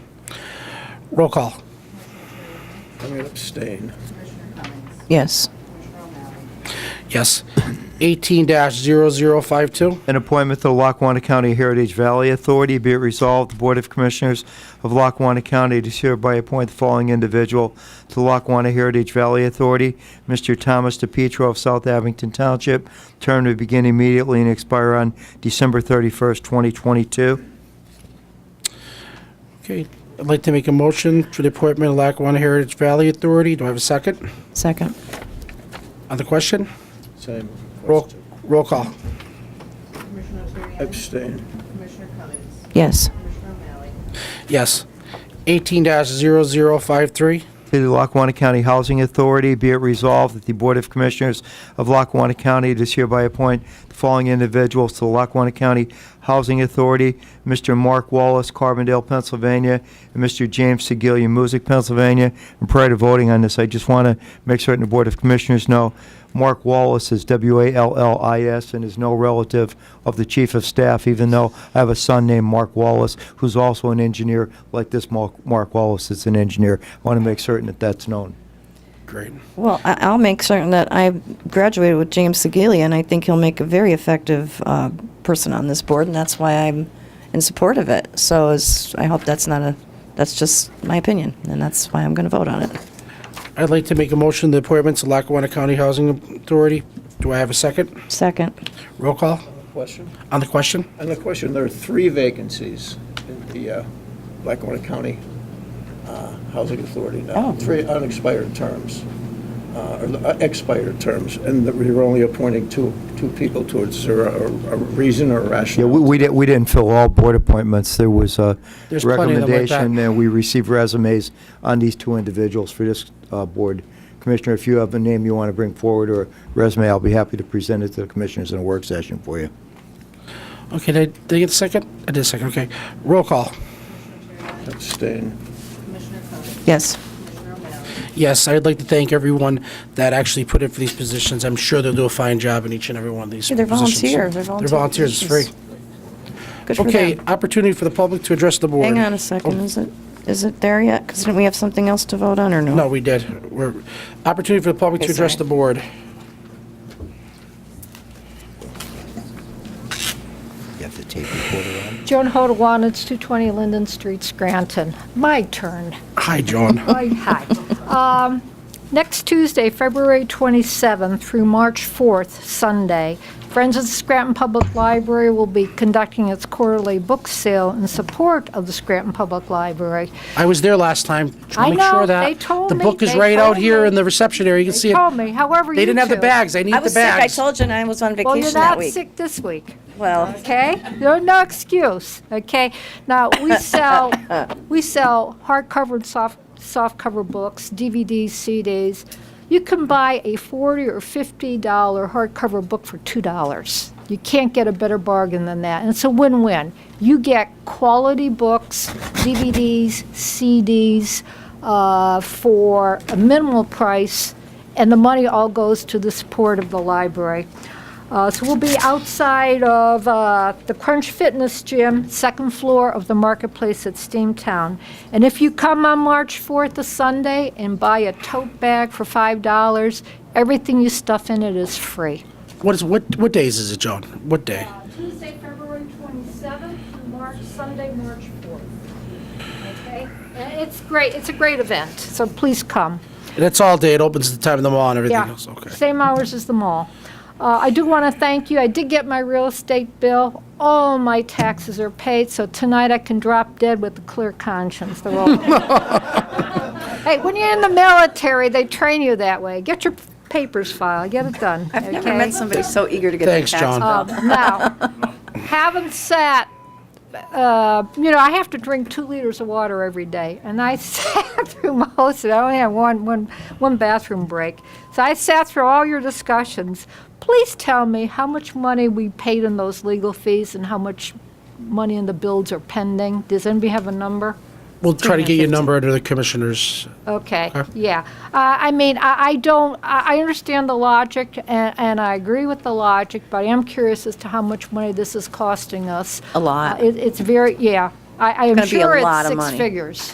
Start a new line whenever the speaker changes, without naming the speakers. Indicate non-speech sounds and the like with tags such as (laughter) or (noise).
Roll call.
I'm going to abstain.
Yes.
Yes. 18-0052.
An appointment to the Lackawanna County Heritage Valley Authority, be it resolved, the Board of Commissioners of Lackawanna County does hereby appoint the following individual to the Lackawanna Heritage Valley Authority, Mr. Thomas DePietro of South Abington Township, term to begin immediately and expire on December 31st, 2022.
Okay, I'd like to make a motion for the appointment of Lackawanna Heritage Valley Authority. Do I have a second
Second.
on the question?
Same.
Roll, roll call.
Commissioner O'Shea?
Abstain.
Commissioner Cummings?
Yes.
Commissioner O'Malley?
Yes. 18-0053.
To the Lackawanna County Housing Authority, be it resolved that the Board of Commissioners of Lackawanna County does hereby appoint the following individuals to the Lackawanna County Housing Authority, Mr. Mark Wallace, Carbondale, Pennsylvania, and Mr. James Segilia, Music, Pennsylvania. And prior to voting on this, I just want to make certain the Board of Commissioners know, Mark Wallace is W-A-L-L-I-S and is no relative of the Chief of Staff, even though I have a son named Mark Wallace, who's also an engineer, like this Mark Mark Wallace is an engineer. I want to make certain that that's known.
Great.
Well, I- I'll make certain that I graduated with James Segalia, and I think he'll make a very effective uh, person on this board, and that's why I'm in support of it. So is- I hope that's not a, that's just my opinion, and that's why I'm going to vote on it.
I'd like to make a motion, the appointments of Lackawanna County Housing Authority. Do I have a second?
Second.
Roll call
Question?
on the question?
On the question, there are three vacancies in the uh, Lackawanna County uh, Housing Authority now.
Oh.
Three unexpired terms, uh, or uh, expired terms, and that we were only appointing two, two people towards a a reason or
Yeah, we,
rationale.
we didn't, we didn't fill all board appointments. There was a
There's plenty of them like that.
recommendation, and we received resumes on these two individuals for this uh, board. Commissioner, if you have a name you want to bring forward or a resume, I'll be happy to present it to the commissioners in a work session for you.
Okay, did I- did I get a second? I did a second, okay. Roll call.
Abstain.
Commissioner Cummings?
Yes.
Commissioner O'Malley?
Yes, I'd like to thank everyone that actually put in for these positions. I'm sure they'll do a fine job in each and every one of these
Yeah, they're
positions.
volunteer. They're
They're
volunteer
volunteers, it's free.
positions. Good for
Okay,
them.
opportunity for the public to address the board. Oh.
Hang on a second. Is it, is it there yet? Because didn't we have something else to vote on, or no?
No, we did. We're, opportunity for the public to
Okay,
address the
sorry.
board.
You have the tape recorder on?
Joan Hodawan, it's 220 Linden Street, Scranton. My turn.
Hi, John.
(laughs)
Hi, hi. Um, Next Tuesday, February 27th through March 4th, Sunday, Friends of the Scranton Public Library will be conducting its quarterly book sale in support of the Scranton Public Library.
I was there last time. Just wanna
I
make
know,
sure that
they told
The
me,
book is
they
right out
told
here
me.
in the reception area. You can see it.
Tell me, however you
They didn't have the
two-
bags. I need
I
the
was sick. I
bags.
told you, and I was on
Well, you're
vacation that
not
week.
sick this week.
Well,
okay? No, no excuse, okay? Now, we sell, we sell hardcover and soft, softcover books, DVDs, CDs. You can buy a forty or fifty dollar hardcover book for two dollars. You can't get a better bargain than that, and it's a win-win. You get quality books, DVDs, CDs, uh, for a minimal price, and the money all goes to the support of the library. Uh, So we'll be outside of uh, the Crunch Fitness Gym, second floor of the Marketplace at Steamtown. And if you come on March 4th, a Sunday, and buy a tote bag for $5, everything you stuff in it is free.
What is, what, what days is it, John? What day?
Tuesday, February 27th, March, Sunday, March 4th. Okay? It's great, it's a great event, so please come.
And it's all day. It opens the time of the mall and everything
Yeah,
else. Okay.
Same hours as the mall. Uh, I do want to thank you. I did get my real estate bill. All my taxes are paid, so tonight I can drop dead with a clear conscience.
(laughs)
They're all. (laughs) Hey, when you're in the military, they train you that way. Get your papers filed, get it done.
I've never met somebody so eager to get their
Thanks,
tax
John.
bill.
(laughs) Now, having sat, uh, you know, I have to drink two liters of water every day, and I (laughs) sat through most of it. I only had one, one, one bathroom break. So I sat through all your discussions. Please tell me how much money we paid in those legal fees and how much money in the bills are pending. Does anybody have a number?
We'll try to get your number under the commissioners.
Okay, yeah. Uh, I mean, I, I don't, I, I understand the logic, and, and I agree with the logic, but I am curious as to how much money this is costing us.
A lot.
Uh, It, it's very, yeah. I, I am
gonna be a
sure
lot
it's
of
six
money.
figures.